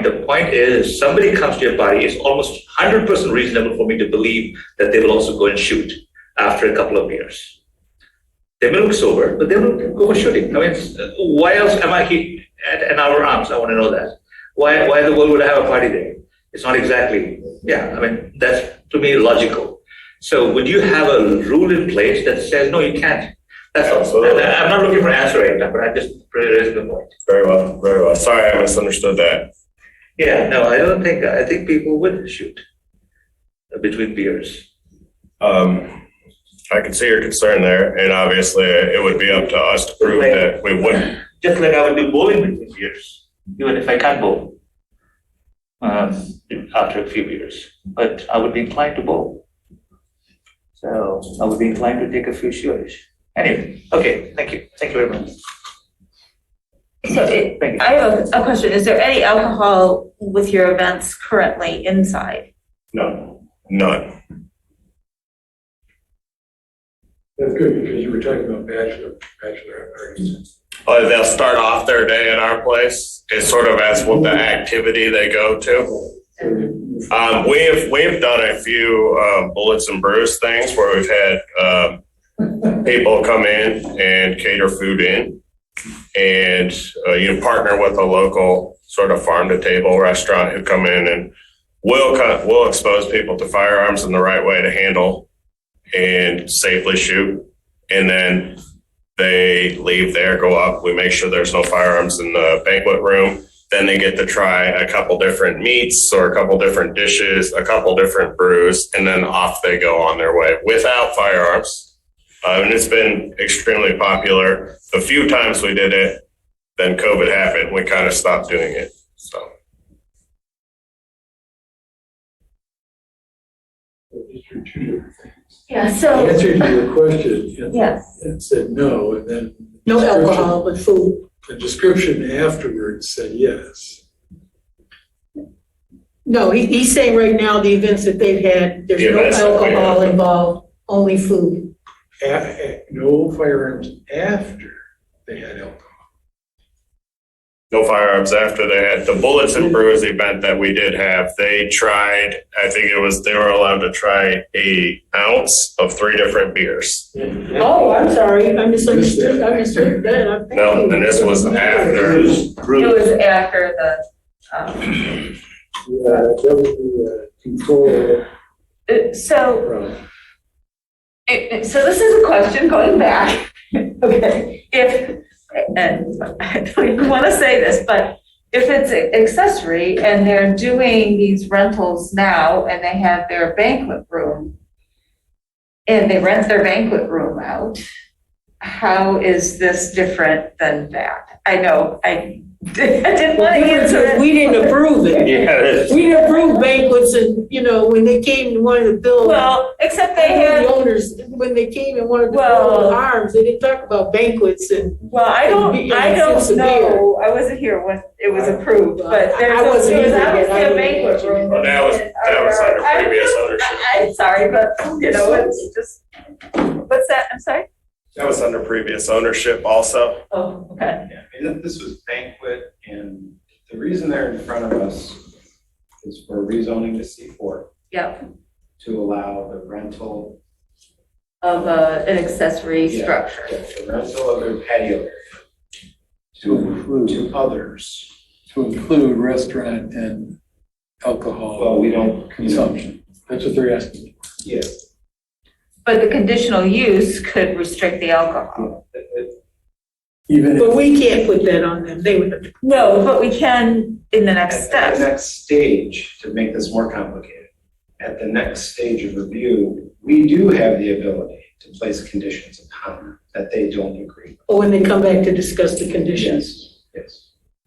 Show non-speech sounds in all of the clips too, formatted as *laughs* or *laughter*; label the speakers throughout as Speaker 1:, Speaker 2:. Speaker 1: point. The point is, somebody comes to your party, it's almost 100% reasonable for me to believe that they will also go and shoot after a couple of years. They may look sober, but they will go for shooting. I mean, it's- why else am I here at an hour arms? I want to know that. Why, why in the world would I have a party there? It's not exactly, yeah, I mean, that's to me logical. So would you have a rule in place that says, no, you can't? That's all.
Speaker 2: Absolutely.
Speaker 1: And I- I'm not looking for an answer right now, but I just raised the point.
Speaker 2: Very well, very well. Sorry, I misunderstood that.
Speaker 1: Yeah, no, I don't think, I think people would shoot between beers.
Speaker 2: Um, I can see your concern there, and obviously it would be up to us to prove that we wouldn't.
Speaker 1: Just like I would do bowling between beers, even if I can't bowl. Um, after a few beers, but I would be inclined to bowl. So I would be inclined to take a few shots. Anyway, okay, thank you, thank you very much.
Speaker 3: So it,
Speaker 1: Thank you.
Speaker 3: I have a question. Is there any alcohol with your events currently inside?
Speaker 2: No. None.
Speaker 4: That's good, because you were talking about bachelor, bachelor parties.
Speaker 2: Uh, they'll start off their day at our place. It's sort of as what the activity they go to.
Speaker 4: So you-
Speaker 2: Um, we've we've done a few um, bullets and brews things where we've had um, people come in and cater food in, and uh, you partner with a local sort of farm to table restaurant who come in and will cut will expose people to firearms in the right way to handle and safely shoot, and then they leave there, go up. We make sure there's no firearms in the banquet room then they get to try a couple different meats or a couple different dishes, a couple different brews, and then off they go on their way without firearms. Uh, and it's been extremely popular. The few times we did it, then COVID happened. We kind of stopped doing it. So
Speaker 4: These are two different- The
Speaker 3: Yeah,
Speaker 4: Answer to your question, and-
Speaker 3: Yes.
Speaker 4: and said no, and then.
Speaker 5: No
Speaker 4: description-
Speaker 5: alcohol, but food.
Speaker 4: The description afterwards said yes.
Speaker 5: No, he, he's saying right now, the events that they've had, there's
Speaker 2: oh, Yeah,
Speaker 5: no
Speaker 2: that's not right.
Speaker 5: alcohol involved, only food.
Speaker 4: A- a- no firearms after they had alcohol.
Speaker 2: no firearms after that. The bullets and brews event that we did have, they tried. I think it was they were allowed to try a ounce of three different beers.
Speaker 5: Oh, I'm sorry, I misunderstood, I misunderstood that. I'm
Speaker 2: No, and this was after.
Speaker 3: It was after the, um,
Speaker 4: Yeah, uh, that would be a control
Speaker 3: uh, so,
Speaker 4: problem.
Speaker 3: it- it- so this is a question going back. *laughs* Okay, if, and *laughs* I don't even want to say this, but if it's accessory and they're doing these rentals now and they have their banquet room and they rent their banquet room out, how is this different than that? I know, I *laughs* did- I didn't want to answer that.
Speaker 5: We didn't approve it.
Speaker 1: Yeah.
Speaker 5: We didn't approve banquets and, you know, when they came and wanted to build.
Speaker 3: Well, except they
Speaker 5: The
Speaker 3: had,
Speaker 5: owners, when they came and wanted to
Speaker 3: Well-
Speaker 5: build arms, they didn't talk about banquets and.
Speaker 3: well, I don't, I
Speaker 5: It's a
Speaker 3: don't
Speaker 5: beer.
Speaker 3: know, I wasn't here when it was approved, but
Speaker 5: I-
Speaker 3: there's,
Speaker 5: I
Speaker 3: a-
Speaker 5: wasn't
Speaker 3: there was
Speaker 5: either, but
Speaker 3: obviously
Speaker 5: I
Speaker 3: a
Speaker 5: don't
Speaker 3: banquet
Speaker 5: know.
Speaker 3: room.
Speaker 2: Well, that was- that was under
Speaker 3: I-
Speaker 2: previous ownership.
Speaker 3: *laughs* I- I'm sorry, but, you *laughs* know, it's just, what's that, I'm sorry?
Speaker 2: That was under previous ownership also.
Speaker 3: Oh, okay,
Speaker 6: Yeah, I mean, this was banquet, and the reason they're in front of us is for rezoning to C4
Speaker 3: yeah,
Speaker 6: to allow the rental,
Speaker 3: of uh, an accessory
Speaker 6: Yeah.
Speaker 3: structure.
Speaker 6: the rental of their patio area to, to others.
Speaker 7: to include restaurant and alcohol
Speaker 6: Well, we don't.
Speaker 7: consumption. That's what they're asking.
Speaker 6: Yeah,
Speaker 3: But the conditional use could restrict the alcohol.
Speaker 6: it- it-
Speaker 7: Even if
Speaker 5: But we can't put that on them, they would.
Speaker 3: No, but we can in the next
Speaker 6: At the
Speaker 3: step.
Speaker 6: next stage, to make this more complicated, at the next stage of review, we do have the ability to place conditions upon that they don't agree.
Speaker 5: Or when they come back to discuss the conditions.
Speaker 6: Yes, Yes.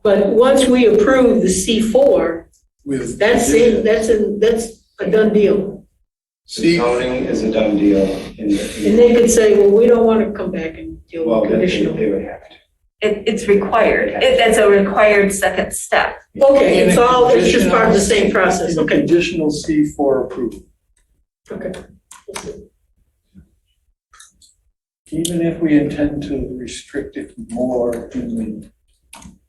Speaker 5: But once we approve the C4,
Speaker 7: with.
Speaker 5: that's it, that's, a- that's a done deal.
Speaker 7: See,
Speaker 6: Zoning is a done deal in the.
Speaker 5: And they could say, well, we don't want to come back and deal
Speaker 6: Well,
Speaker 5: with
Speaker 6: they, they
Speaker 5: conditional.
Speaker 6: they would have to.
Speaker 3: It, it's required, it, that's a required second step.
Speaker 5: Okay, it's all, it's just part of the same process,
Speaker 7: in a
Speaker 5: okay,
Speaker 7: Conditional C four approval,
Speaker 5: okay.
Speaker 7: even if we intend to restrict it more in the